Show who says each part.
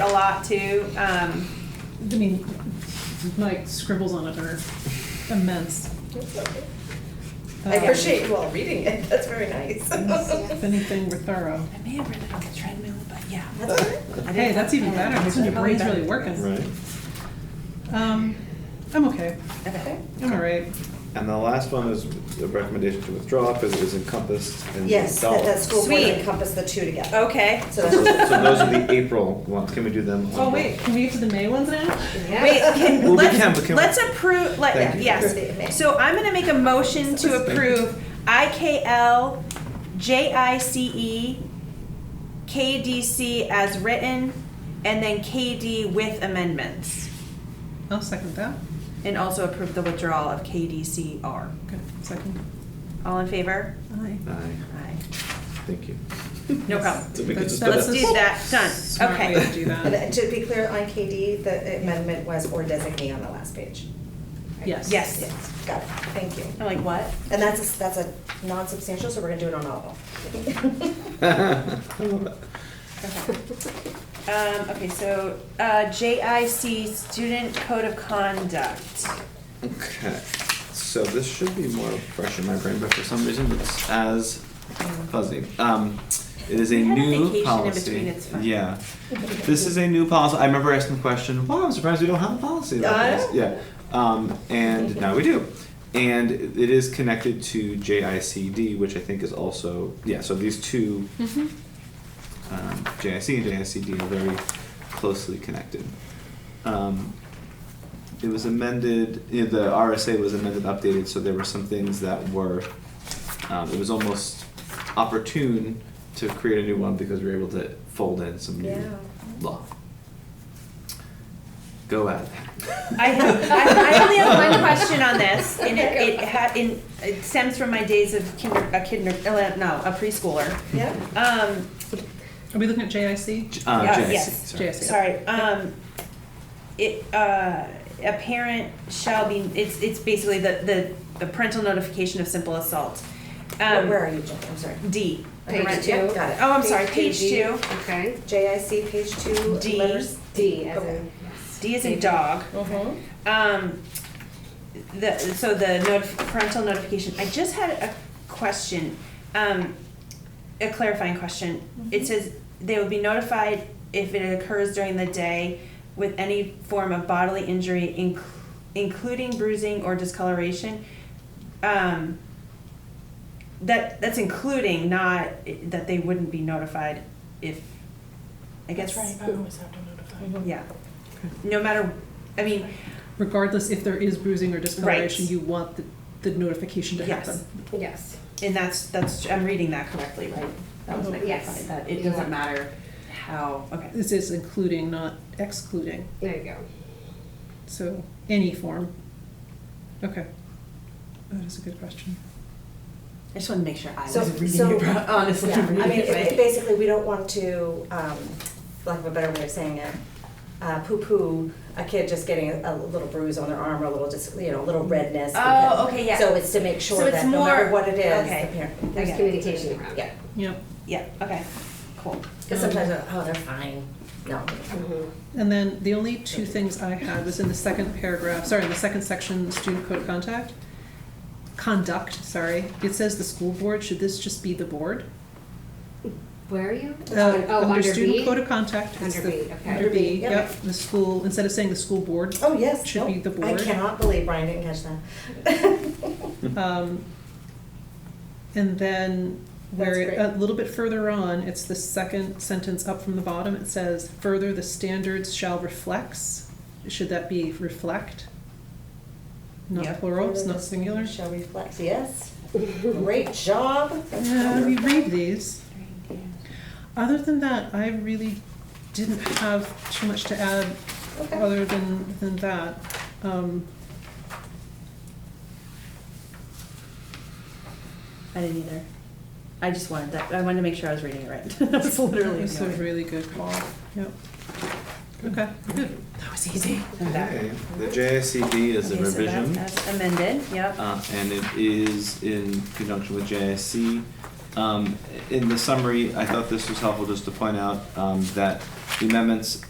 Speaker 1: a lot too. Um,
Speaker 2: I mean, my scribbles on it are immense. Um,
Speaker 3: I appreciate you all reading it, that's very nice.
Speaker 2: If anything, we're thorough.
Speaker 1: I may have read it on the treadmill, but yeah.
Speaker 3: That's all right.
Speaker 2: Hey, that's even better, because your brain's really working.
Speaker 4: Right.
Speaker 2: Um, I'm okay,
Speaker 3: Okay.
Speaker 2: I'm all right.
Speaker 4: And the last one is the recommendation to withdraw because it was encompassed in the
Speaker 3: Yes, that, that
Speaker 4: dollars.
Speaker 3: school board
Speaker 1: Sweet. Oh.
Speaker 3: encompass the two together.
Speaker 1: Okay.
Speaker 3: So
Speaker 4: So
Speaker 3: that's.
Speaker 4: so those are the April ones, can we do them?
Speaker 2: Oh, wait, can we get to the May ones now?
Speaker 3: Yeah.
Speaker 1: Wait, can,
Speaker 4: Well, we
Speaker 1: let's,
Speaker 4: can, but can we-
Speaker 1: let's approve,
Speaker 4: Thank
Speaker 1: let,
Speaker 4: you.
Speaker 1: yes. So I'm gonna make a motion to approve IKL, JICE, KDC as written, and then KD with amendments.
Speaker 2: I'll second that.
Speaker 1: And also approve the withdrawal of KDCR.
Speaker 2: Okay, second.
Speaker 1: All in favor?
Speaker 2: Aye.
Speaker 4: Aye,
Speaker 1: Aye.
Speaker 4: thank you.
Speaker 1: No problem.
Speaker 4: So we could
Speaker 2: That's-
Speaker 4: just
Speaker 1: that.
Speaker 2: that's a
Speaker 4: do
Speaker 1: Did that, done.
Speaker 2: smart
Speaker 1: Okay.
Speaker 2: way to do that.
Speaker 3: But uh, to be clear, on KD, the amendment was or designate on the last page. Right?
Speaker 2: Yes.
Speaker 1: Yes.
Speaker 3: Yes, got it, thank you.
Speaker 1: I'm like, what?
Speaker 3: And that's, a- that's a non-substantial, so we're gonna do it on all of them.
Speaker 4: I love it.
Speaker 1: Um, okay, so, uh, JIC, Student Code of Conduct.
Speaker 4: Okay, so this should be more fresh in my brain, but for some reason it's as fuzzy. Um, it is a
Speaker 1: We had a vacation
Speaker 4: new
Speaker 1: in
Speaker 4: policy.
Speaker 1: between, it's fine.
Speaker 4: Yeah, this is a new policy. I remember asking the question, "Wow, I'm surprised we don't have a policy like
Speaker 3: I
Speaker 1: Uh-huh.
Speaker 4: this."
Speaker 3: know.
Speaker 4: Yeah, um, and now we do, and it is connected to JICD, which I think is also yeah. So these two, um, JIC and JICD, are very closely connected. Um, it was amended, you know, the RSA was amended, updated, so there were some things that were, um, it was almost opportune to create a new one because we were able to fold in some
Speaker 3: Yeah.
Speaker 4: new law. Go at it.
Speaker 1: I have, I, I only have one question on this, and it, it ha, in, it stems from my days of kinder, a kinder, uh, no, a preschooler.
Speaker 3: Yeah,
Speaker 1: Um,
Speaker 2: Are we looking at JIC?
Speaker 4: J- uh,
Speaker 1: Yeah,
Speaker 4: JIC,
Speaker 1: yes,
Speaker 4: sorry.
Speaker 2: JIC.
Speaker 1: sorry, um, it, uh, a parent shall be, it's, it's basically the, the, the parental notification of simple assault.
Speaker 3: where
Speaker 1: Um,
Speaker 3: where are you, Jen, I'm sorry.
Speaker 1: D.
Speaker 5: Page
Speaker 3: Yeah,
Speaker 5: two.
Speaker 3: Got it.
Speaker 1: Oh, I'm sorry, page two.
Speaker 5: Okay.
Speaker 3: JIC, page two,
Speaker 1: D.
Speaker 3: letters.
Speaker 5: D as
Speaker 3: Okay.
Speaker 5: in.
Speaker 1: D is a dog.
Speaker 3: Mhm.
Speaker 1: Um, the, so the notif- parental notification, I just had a question, um, a clarifying question. It says they will be notified if it occurs during the day with any form of bodily injury, inc- including bruising or discoloration. Um, that, that's including, not that they wouldn't be notified if, I guess.
Speaker 6: always have to notify.
Speaker 3: Mm-hmm.
Speaker 1: Yeah. No matter, I mean,
Speaker 2: Regardless if there is bruising or discoloration,
Speaker 1: Right.
Speaker 2: you want the, the notification to
Speaker 1: Yes.
Speaker 2: happen.
Speaker 5: Yes.
Speaker 1: And that's, that's, I'm reading that correctly, right? That was my
Speaker 5: Mhm. Yes.
Speaker 1: clarifying, that it doesn't matter how, okay.
Speaker 2: This is including, not excluding,
Speaker 5: There you go.
Speaker 2: so any form. Okay. That is a good question.
Speaker 1: I just wanted to make sure I
Speaker 3: So-
Speaker 1: was reading
Speaker 3: so-
Speaker 1: it right, honestly.
Speaker 3: Yeah, I mean,
Speaker 1: reading it
Speaker 3: it- it-
Speaker 1: right.
Speaker 3: basically, we don't want to, um, for lack of a better way of saying it, uh, poo-poo a kid just getting a, a little bruise on their arm or a little, just, you know, a little redness.
Speaker 1: Oh,
Speaker 3: because-
Speaker 1: okay, yeah.
Speaker 3: So it's to make
Speaker 1: So
Speaker 3: sure
Speaker 1: it's
Speaker 3: that no matter
Speaker 1: more-
Speaker 3: what it is,
Speaker 1: okay.
Speaker 3: the parent,
Speaker 5: There's
Speaker 1: Okay.
Speaker 5: communication around
Speaker 3: yeah.
Speaker 5: it.
Speaker 2: Yep.
Speaker 1: Yeah, okay, cool.
Speaker 3: Because sometimes, they're, oh, they're fine, no.
Speaker 2: And then the only two things I had was in the second paragraph, sorry, in the second section, student code of contact. Conduct, sorry. It says the school board, should this just be the board?
Speaker 5: Where are you?
Speaker 2: Uh,
Speaker 5: oh, under,
Speaker 2: student
Speaker 5: B?
Speaker 2: code of contact. it's
Speaker 5: Under
Speaker 2: the-
Speaker 5: B, okay.
Speaker 2: Under B,
Speaker 3: Yep.
Speaker 2: yep, the school, instead of saying the school board,
Speaker 3: Oh, yes,
Speaker 2: Should be
Speaker 3: no,
Speaker 2: the
Speaker 3: I
Speaker 2: board.
Speaker 3: cannot believe Brian didn't catch that.
Speaker 2: um, and then
Speaker 3: That's
Speaker 2: where,
Speaker 3: great.
Speaker 2: a little bit further on, it's the second sentence up from the bottom, it says, further, the standards shall reflects, should that be reflect?
Speaker 1: Yeah.
Speaker 2: Not plural, it's not singular.
Speaker 3: Shall reflect, yes, great job.
Speaker 2: Yeah, we Uh, read these. Other than that, I really didn't have too much to add,
Speaker 3: Okay.
Speaker 2: other than, than that. Um,
Speaker 1: I didn't either. I just wanted that, I wanted to make sure I was reading it right. That was
Speaker 2: That
Speaker 1: literally
Speaker 2: was a
Speaker 1: the only-
Speaker 2: really good call, yep. Okay, good.
Speaker 1: That was easy.
Speaker 4: Okay, the JICD is a
Speaker 1: Okay, so that-
Speaker 4: revision.
Speaker 1: that's Amended, yep.
Speaker 4: uh, and it is in conjunction with JIC. Um, in the summary, I thought this was helpful just to point out um, that the amendments